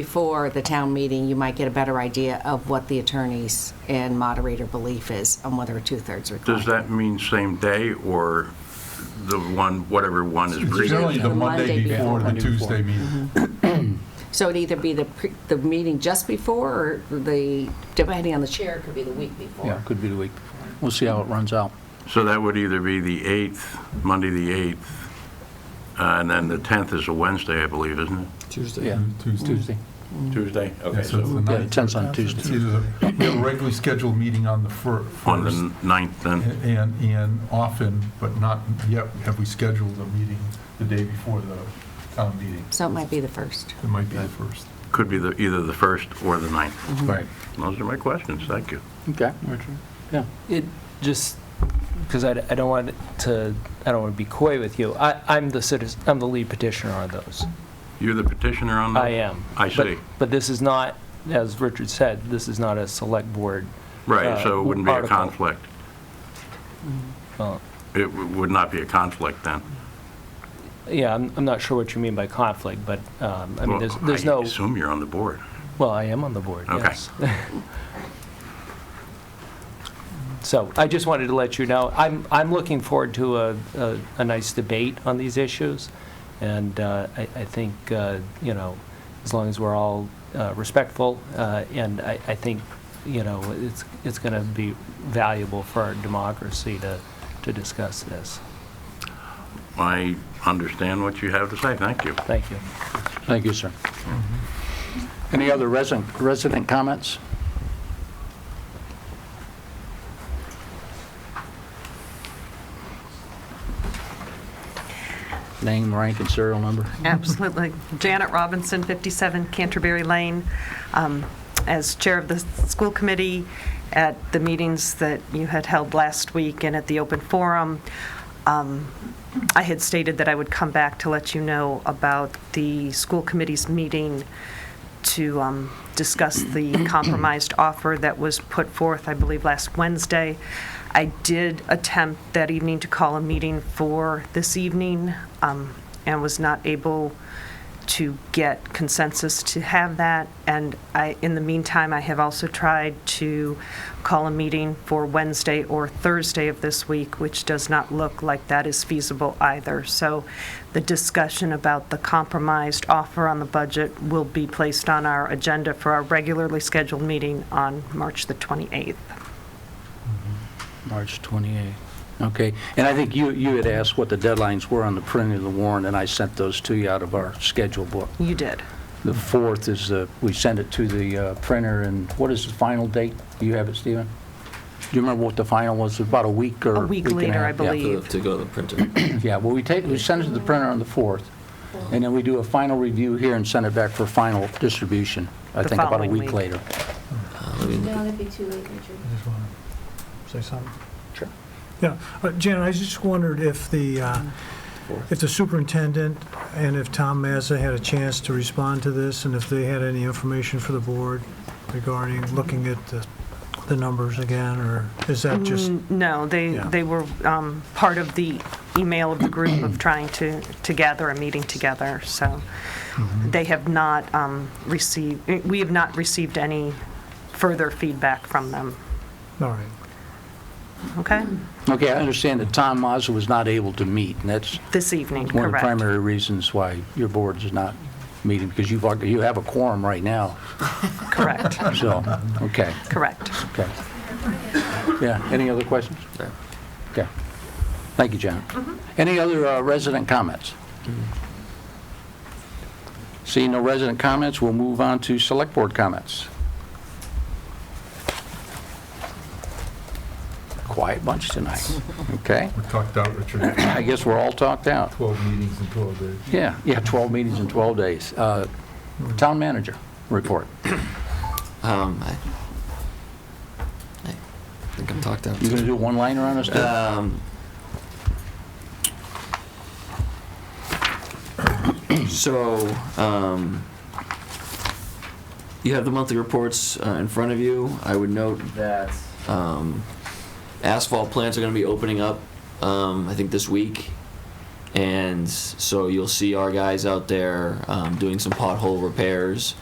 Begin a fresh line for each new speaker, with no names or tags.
before the town meeting, you might get a better idea of what the attorney's and moderator belief is on whether a two-thirds
Does
required.
that mean same day or the one, whatever one is
It's
previous?
generally the Monday before Mm-hmm. the Tuesday meeting.
So it'd either be the, pre- the meeting just before, or the, depending on the chair, it could be the week
Yeah,
before.
it could be the week before. We'll see how it runs out.
So that would either be the 8th, Monday, the 8th, uh, and then the 10th is a Wednesday, I believe, isn't
Yeah,
Mm-hmm.
Tuesday.
it? Tuesday? Okay,
Yeah, so it's the
so
Yeah,
ninth.
it turns on
It's
Tuesday.
either the- we have a regularly scheduled meeting on the fir-
on the
first,
9th then?
and, and often, but not yet, have we scheduled a meeting the day before the town meeting.
So it might be the first.
It might be the first.
Could be the, either the 1st or the 9th.
Mm-hmm.
Right.
Those are my questions, thank you.
Okay. Yeah.
It just, because I, I don't want to, I don't want to be coy with you. I, I'm the citizen, I'm the lead petitioner on those.
You're the petitioner on that?
I am.
Mm. I
But-
see.
But this is not, as Richard said, this is not a select board.
Right, so
uh,
it wouldn't be a
article.
conflict.
Well,
It w- would not be a conflict then?
Yeah, I'm, I'm not sure what you mean by conflict, but, um, I mean, there's,
Well,
there's no,
I assume you're on the board.
well, I am on the board,
Okay.
yes. So I just wanted to let you know, I'm, I'm looking forward to a, a, a nice debate on these issues. And, uh, I, I think, uh, you know, as long as we're all, uh, respectful, uh, and I, I think, you know, it's, it's gonna be valuable for our democracy to, to discuss this.
I understand what you have to say, thank you.
Thank you.
Thank you, sir. Any other resident, resident comments? Name, rank, and serial number?
Absolutely. Janet Robinson, 57 Canterbury Lane. Um, As Chair of the School Committee, at the meetings that you had held last week and at the open forum, um, I had stated that I would come back to let you know about the school committee's meeting to um, discuss the compromised offer that was put forth, I believe, last Wednesday. I did attempt that evening to call a meeting for this evening um, and was not able to get consensus to have that. And I, in the meantime, I have also tried to call a meeting for Wednesday or Thursday of this week, which does not look like that is feasible either. So the discussion about the compromised offer on the budget will be placed on our agenda for our regularly scheduled meeting on March the 28th.
March 28th. Okay, and I think you, you had asked what the deadlines were on the printing of the warrant, and I sent those to you out of our schedule book.
You did.
The 4th is, the we send it to the uh, printer, and what is the final date? Do you have it, Stephen? Do you remember what the final was, about a week or?
A week
and
later, I
half? Yeah.
believe.
To go to the printer.
Yeah, well, we take, we send it to the printer on the 4th, and then we do a final review here and send it back for final distribution, I
The
think about a
following
week
week.
later.
Uh, let me-
No, that'd be too late, Richard.
I just want to say something.
Sure.
Yeah, uh, Janet, I just wondered if the, uh, if the superintendent and if Tom Mazza had a chance to respond to this, and if they had any information for the board regarding looking at the, the numbers again, or is that just,
N- Mm, No, they,
Yeah.
they were um, part of the email of the group of trying to, to gather a meeting together, so
Mm-hmm.
they have not um, received, we have not received any further feedback from them,
all right.
okay?
Okay, I understand that Tom Mazza was not able to meet, and that's
This evening,
one of the
correct.
primary reasons why your board is not meeting, because you've, already- you have a quorum right now,
Correct,
so, okay,
correct.
okay. Yeah, any other questions?
No.
Okay. Thank you, Janet. Any other uh, resident comments? Seeing no resident comments, we'll move on to select board comments. Quiet bunch tonight, okay?
We're talked out, Richard,
I guess we're all talked out.
12 meetings in 12 days.
Yeah, yeah, 12 meetings in 12 days. Uh, Town manager report.
Um, I, I think I'm talked out.
You going to do a one-liner on us, too?
Um, so, um, you have the monthly reports uh, in front of you. I would note that um, asphalt plants are going to be opening up, um, I think, this week. And so you'll see our guys out there um, doing some pothole repairs.